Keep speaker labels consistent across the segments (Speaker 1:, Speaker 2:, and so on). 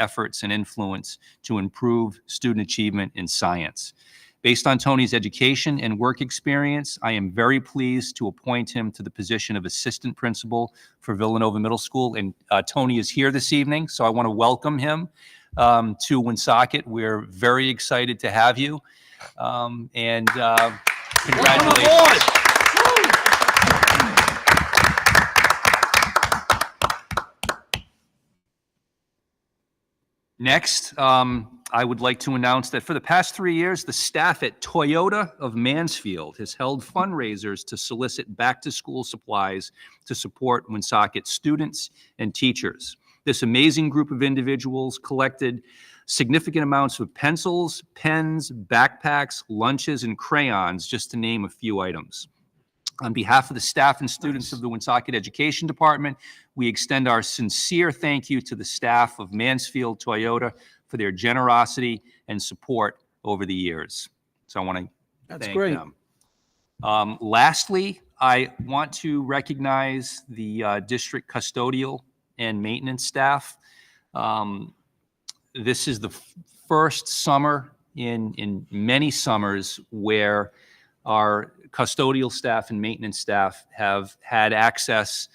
Speaker 1: efforts and influence to improve student achievement in science. Based on Tony's education and work experience, I am very pleased to appoint him to the position of Assistant Principal for Villanova Middle School. And uh, Tony is here this evening, so I want to welcome him um, to Woonsocket. We're very excited to have you. Um, And uh, congratulations. Next, um, I would like to announce that for the past three years, the staff at Toyota of Mansfield has held fundraisers to solicit back-to-school supplies to support Woonsocket students and teachers. This amazing group of individuals collected significant amounts of pencils, pens, backpacks, lunches, and crayons, just to name a few items. On behalf of the staff and students of the Woonsocket Education Department, we extend our sincere thank you to the staff of Mansfield Toyota for their generosity and support over the years. So I want to
Speaker 2: That's
Speaker 1: thank
Speaker 2: great.
Speaker 1: them. Um, Lastly, I want to recognize the uh, district custodial and maintenance staff. Um, This is the f- first summer in, in many summers where our custodial staff and maintenance staff have had access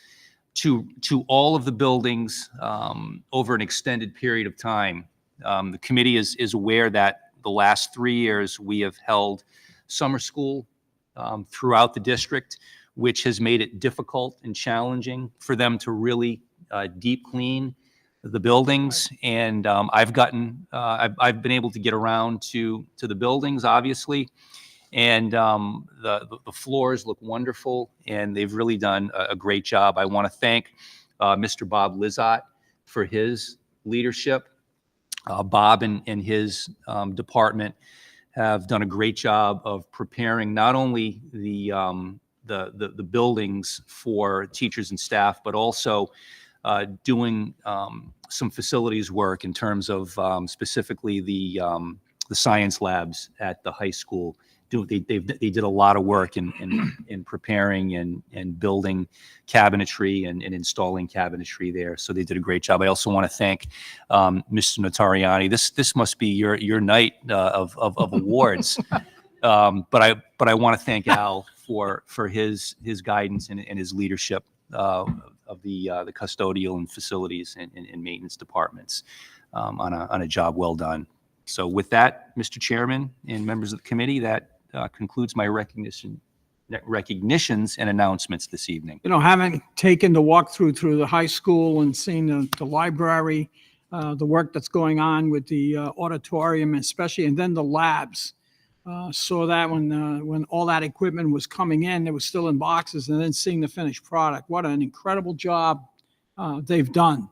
Speaker 1: to, to all of the buildings um, over an extended period of time. Um, The committee is, is aware that the last three years, we have held summer school um, throughout the district, which has made it difficult and challenging for them to really uh, deep clean the buildings. And um, I've gotten, uh, I've, I've been able to get around to, to the buildings, obviously. And um, the, the- the floors look wonderful and they've really done a, a great job. I want to thank uh, Mr. Bob Lizotte for his leadership. Uh, Bob and, and his um, department have done a great job of preparing not only the, um, the, the, the buildings for teachers and staff, but also uh, doing um, some facilities work in terms of um, specifically the, um, the science labs at the high school. Do, they, they've, they did a lot of work in, in, in preparing and, and building cabinetry and, and installing cabinetry there. So they did a great job. I also want to thank um, Mr. Notariani. This this must be your your night uh, of, of of awards. um, but I but I want to thank Al for for his his guidance and, and his leadership uh, of the uh, the custodial and facilities and, and, and maintenance departments um, on a on a job well done. So with that, Mr. Chairman and members of the committee, that uh, concludes my recognition recognitions and announcements this evening.
Speaker 2: You know, having taken the walkthrough through the high school and seen the, the library, uh, the work that's going on with the uh, auditorium especially, and then the labs. Uh, saw that when, uh, when all that equipment was coming in, it was still in boxes, and then seeing the finished product. What an incredible job, uh, they've done.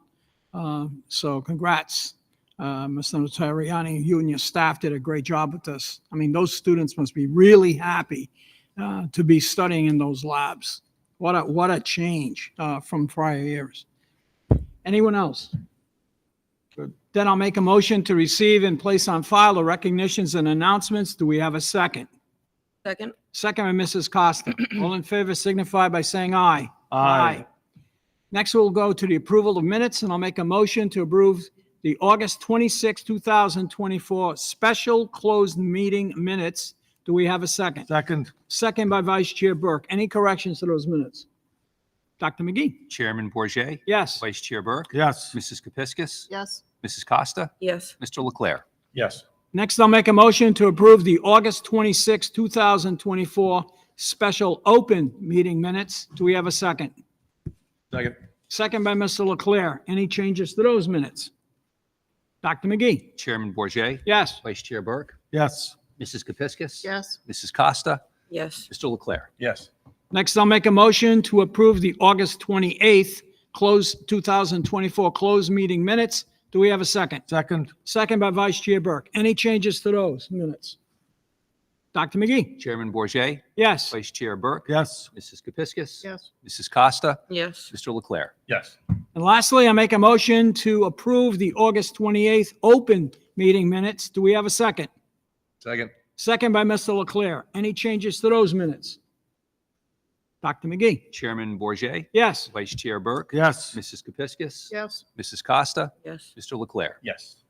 Speaker 2: Uh, so congrats, uh, Mr. Notariani. You and your staff did a great job with this. I mean, those students must be really happy, uh, to be studying in those labs. What a, what a change uh, from prior years. Anyone else? Then I'll make a motion to receive and place on file the recognitions and announcements. Do we have a second?
Speaker 3: Second,
Speaker 2: Second by Mrs. Costa. All in favor signify by saying aye.
Speaker 1: Aye.
Speaker 2: Next, we'll go to the approval of minutes, and I'll make a motion to approve the August 26, 2024 special closed meeting minutes. Do we have a second?
Speaker 4: Second,
Speaker 2: Second by Vice Chair Burke. Any corrections to those minutes? Dr. McGee?
Speaker 1: Chairman Bourget,
Speaker 2: Yes.
Speaker 1: Vice Chair Burke,
Speaker 4: yes.
Speaker 1: Mrs. Kepiscus,
Speaker 3: yes.
Speaker 1: Mrs. Costa,
Speaker 3: Yes,
Speaker 1: Mr. Leclerc.
Speaker 4: Yes.
Speaker 2: Next, I'll make a motion to approve the August 26, 2024 special open meeting minutes. Do we have a second?
Speaker 4: Second.
Speaker 2: Second by Mr. Leclerc. Any changes to those minutes? Dr. McGee?
Speaker 1: Chairman Bourget,
Speaker 2: Yes.
Speaker 1: Vice Chair Burke,
Speaker 4: Yes.
Speaker 1: Mrs. Kepiscus.
Speaker 3: yes.
Speaker 1: Mrs. Costa,
Speaker 3: Yes,
Speaker 1: Mr. Leclerc.
Speaker 4: Yes.
Speaker 2: Next, I'll make a motion to approve the August 28th closed, 2024 closed meeting minutes. Do we have a second?
Speaker 4: Second,
Speaker 2: Second by Vice Chair Burke. Any changes to those minutes? Dr. McGee?
Speaker 1: Chairman Bourget,
Speaker 2: Yes.
Speaker 1: Vice Chair Burke,
Speaker 4: yes.
Speaker 1: Mrs. Kepiscus.
Speaker 3: Yes.
Speaker 1: Mrs. Costa,
Speaker 3: yes,
Speaker 1: Mr. Leclerc.
Speaker 4: Yes.
Speaker 2: And lastly, I make a motion to approve the August 28th open meeting minutes. Do we have a second?
Speaker 4: Second.
Speaker 2: Second by Mr. Leclerc. Any changes to those minutes? Dr. McGee?
Speaker 1: Chairman Bourget,
Speaker 2: Yes.
Speaker 1: Vice Chair Burke,
Speaker 3: Yes.
Speaker 1: Mrs. Kepiscus,
Speaker 4: Yes.
Speaker 1: Mrs. Costa,
Speaker 4: Yes.
Speaker 1: Mr. Leclerc.
Speaker 3: Yes.